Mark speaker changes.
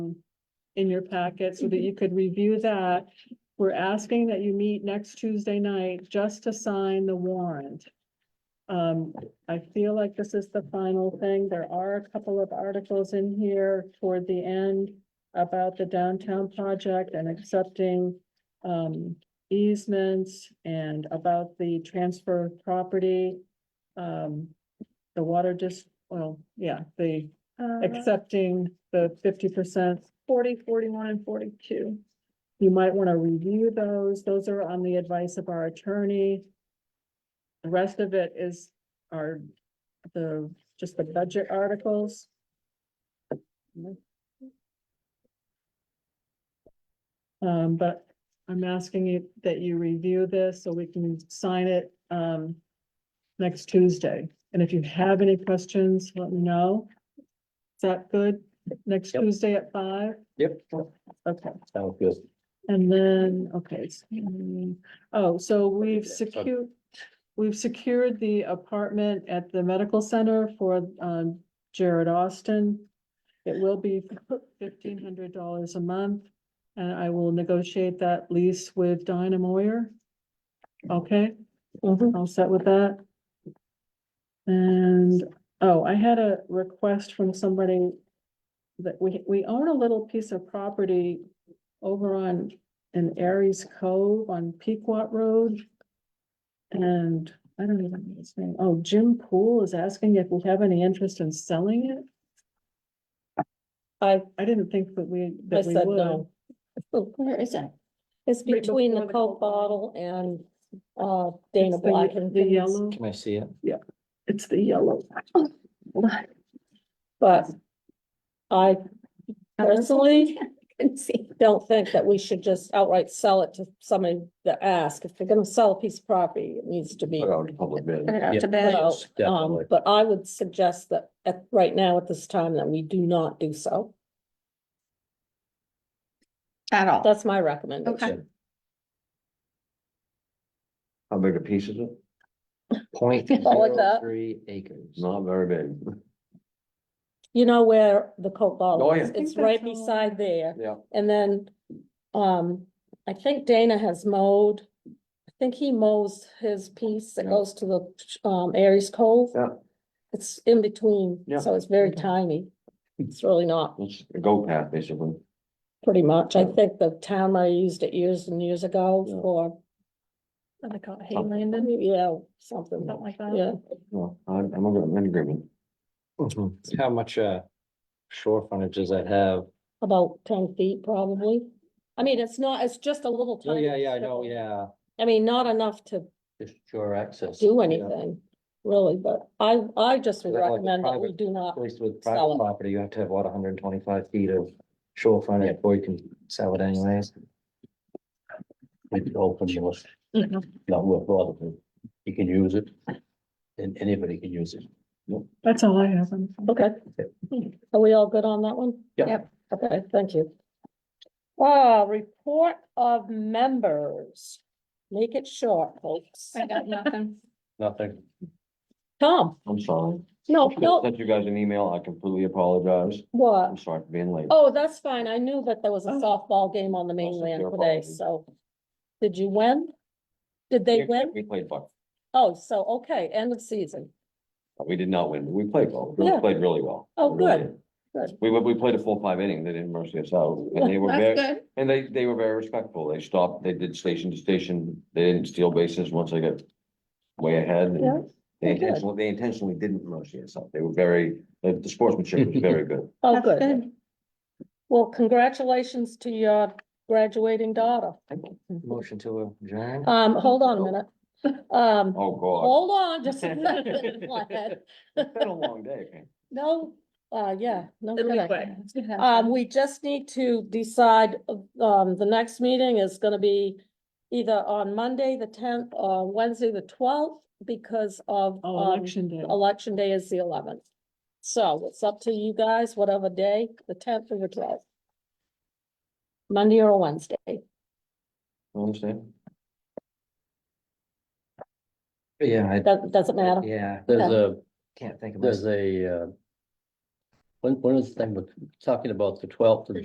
Speaker 1: in your packet so that you could review that. We're asking that you meet next Tuesday night just to sign the warrant. Um, I feel like this is the final thing. There are a couple of articles in here toward the end about the downtown project and accepting um easements and about the transfer of property. Um, the water just, well, yeah, the
Speaker 2: Uh,
Speaker 1: accepting the fifty percent.
Speaker 2: Forty, forty-one and forty-two.
Speaker 1: You might want to review those. Those are on the advice of our attorney. The rest of it is our, the, just the budget articles. Um, but I'm asking you that you review this so we can sign it, um, next Tuesday. And if you have any questions, let me know. Is that good? Next
Speaker 3: Yep.
Speaker 1: Tuesday at five?
Speaker 3: Yep.
Speaker 1: Okay.
Speaker 3: Sounds good.
Speaker 1: And then, okay, it's- mm, oh, so we've
Speaker 3: Yeah, sorry.
Speaker 1: secured, we've secured the apartment at the medical center for um Jared Austin. It will be fifteen hundred dollars a month, and I will negotiate that lease with Dinah Moyer. Okay,
Speaker 4: Mm-hmm.
Speaker 1: all set with that. And, oh, I had a request from somebody that we, we own a little piece of property over on, in Aries Cove on Pequot Road. And I don't even know his name. Oh, Jim Poole is asking if we have any interest in selling it.
Speaker 4: I,
Speaker 1: I didn't think that we,
Speaker 4: I
Speaker 1: that we
Speaker 4: said
Speaker 1: would.
Speaker 4: no. Where is that? It's
Speaker 1: Right
Speaker 4: between the
Speaker 1: before the Coke
Speaker 4: Coke bottle and, uh, Dana
Speaker 1: It's the-
Speaker 4: Black and.
Speaker 1: The
Speaker 4: Things.
Speaker 1: yellow,
Speaker 3: Can I see it?
Speaker 1: it's the yellow.
Speaker 4: But I personally don't think that we should just outright sell it to somebody to ask. If they're gonna sell a piece of property, it needs to be.
Speaker 3: Put out a public bid.
Speaker 2: Put it out
Speaker 3: Yeah,
Speaker 2: to
Speaker 4: put
Speaker 2: bed.
Speaker 4: out.
Speaker 3: yes,
Speaker 4: Um,
Speaker 3: Definitely.
Speaker 4: but I would suggest that at, right now at this time that we do not do so.
Speaker 2: At all.
Speaker 4: That's my recommendation.
Speaker 2: Okay.
Speaker 3: How big a piece is it? Point
Speaker 4: All like
Speaker 3: zero
Speaker 4: that.
Speaker 3: three acres. Not very big.
Speaker 4: You know where the Coke
Speaker 3: Oh,
Speaker 4: bottle
Speaker 3: yeah.
Speaker 4: is?
Speaker 3: I
Speaker 1: think
Speaker 4: It's right
Speaker 1: that's all.
Speaker 4: beside there.
Speaker 3: Yeah.
Speaker 4: And then, um, I think Dana has mowed. I think he mows his piece that
Speaker 3: Yeah.
Speaker 4: goes to the, um, Aries Cove.
Speaker 3: Yeah.
Speaker 4: It's in between,
Speaker 3: Yeah.
Speaker 4: so it's very tiny. It's really not,
Speaker 3: It's a go path, basically.
Speaker 4: pretty much. I
Speaker 3: Yeah.
Speaker 4: think the town might have used it years and years ago
Speaker 3: Yeah. Oh.
Speaker 4: for,
Speaker 2: And I call it Haylandon,
Speaker 4: yeah, something,
Speaker 2: something like that.
Speaker 4: yeah.
Speaker 3: No, I'm, I'm in agreement. How much, uh, shore frontage does that have?
Speaker 4: About ten feet probably. I mean, it's not, it's just a little
Speaker 3: Oh,
Speaker 4: tiny.
Speaker 3: yeah, yeah, I know,
Speaker 4: strip.
Speaker 3: yeah,
Speaker 4: I mean, not enough to
Speaker 3: just shore access.
Speaker 4: do
Speaker 3: yeah.
Speaker 4: anything, really, but I, I just would
Speaker 3: Is that like a
Speaker 4: recommend that we
Speaker 3: private
Speaker 4: do not,
Speaker 3: At least with
Speaker 4: Sell it.
Speaker 3: private property, you have to have what, hundred and twenty-five feet of shore frontage before you can sell it anyways.
Speaker 5: It's open, you must,
Speaker 4: Mm-hmm.
Speaker 2: Mhm.
Speaker 5: not worth bothering. You can use it. And anybody can use it.
Speaker 1: That's all I have. on-
Speaker 4: okay. Are we all good on that one?
Speaker 5: Yeah.
Speaker 2: Yep.
Speaker 4: Okay, thank you. Uh, report of members. Make it short, folks.
Speaker 2: I got nothing.
Speaker 5: Nothing.
Speaker 4: Tom,
Speaker 3: I'm sorry.
Speaker 4: no,
Speaker 3: I
Speaker 4: Oh, no,
Speaker 3: Sent you guys an email. I completely apologize.
Speaker 4: what?
Speaker 3: I'm sorry for being late.
Speaker 4: Oh, that's fine. I knew that there was a
Speaker 1: Oh.
Speaker 4: softball game on the mainland
Speaker 3: your
Speaker 4: today,
Speaker 3: fault.
Speaker 4: so. Did you win? Did they
Speaker 3: We-
Speaker 4: win?
Speaker 3: We played ball.
Speaker 4: Oh, so, okay, end of season.
Speaker 3: We did not win, but we played well. We
Speaker 4: Yeah.
Speaker 3: played really well.
Speaker 4: Oh,
Speaker 3: We really
Speaker 4: good,
Speaker 3: did.
Speaker 4: good.
Speaker 3: We, we played a full five inning. They didn't mercy us out and they were
Speaker 2: That's
Speaker 3: very,
Speaker 4: Oh,
Speaker 2: good.
Speaker 3: and they, they were very respectful. They stopped, they did station to station. They didn't steal bases once they got way ahead. and
Speaker 4: Yeah,
Speaker 3: They
Speaker 4: they're good.
Speaker 3: intentionally, they intentionally didn't mercy us out. They were very, the the sportsmanship was very good.
Speaker 4: Oh,
Speaker 2: That's
Speaker 4: good. Well, congratulations to your graduating daughter.
Speaker 3: Motion to adjourn?
Speaker 4: Um, hold on a minute. Um,
Speaker 3: Oh, God.
Speaker 4: hold on just a second. Vlad.
Speaker 3: It's been a long day, man.
Speaker 4: No, uh, yeah, no
Speaker 2: It'll be
Speaker 4: kidding.
Speaker 2: quick. It's gonna
Speaker 4: Um,
Speaker 2: happen.
Speaker 4: we just need to decide, um, the next meeting is gonna be either on Monday, the tenth, or Wednesday, the twelfth, because of,
Speaker 1: Oh,
Speaker 4: um,
Speaker 1: election day.
Speaker 4: election day is the eleventh. So it's up to you guys, whatever day, the tenth or the twelfth. Monday or Wednesday.
Speaker 3: Understand?
Speaker 5: Yeah, I,
Speaker 4: Doesn't, doesn't matter.
Speaker 5: yeah, there's a,
Speaker 3: Can't think of it.
Speaker 5: there's a, uh. One, one of the things, we're talking about the twelfth of